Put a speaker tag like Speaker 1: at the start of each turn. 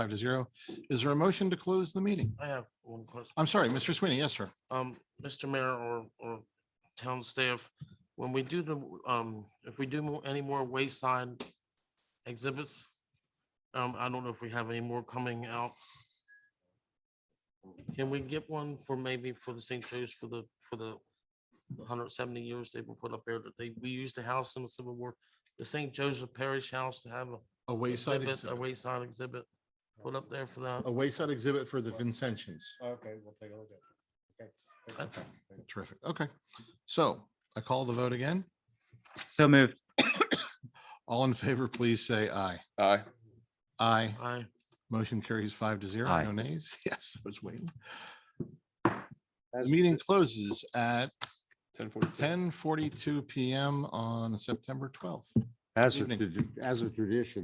Speaker 1: Five to zero. Is there a motion to close the meeting?
Speaker 2: I have one question.
Speaker 1: I'm sorry, Mr. Sweeney. Yes, sir.
Speaker 2: Um, Mr. Mayor or, or town staff, when we do the, um, if we do mo- any more wayside exhibits, um, I don't know if we have any more coming out. Can we get one for maybe for the St. Joe's for the, for the hundred seventy years they were put up there that they, we used the house in the Civil War, the St. Joseph Parish House to have a
Speaker 1: A wayside
Speaker 2: exhibit,
Speaker 1: exhibit, Oh.
Speaker 2: a wayside exhibit put up there for that.
Speaker 1: a wayside exhibit for the Vincentians.
Speaker 3: Okay, we'll take a look at it. Okay.
Speaker 2: Okay.
Speaker 3: Thank you.
Speaker 1: Terrific. Okay. So I call the vote again.
Speaker 4: So moved.
Speaker 1: All in favor, please say aye.
Speaker 5: Aye.
Speaker 1: Aye.
Speaker 2: I,
Speaker 1: Motion carries five to zero.
Speaker 4: Aye.
Speaker 1: No nays. Yes, I was waiting. The meeting closes at
Speaker 5: Ten forty-two.
Speaker 1: ten forty-two PM on September twelfth.
Speaker 6: As a,
Speaker 1: Evening.
Speaker 6: tradi- as a tradition,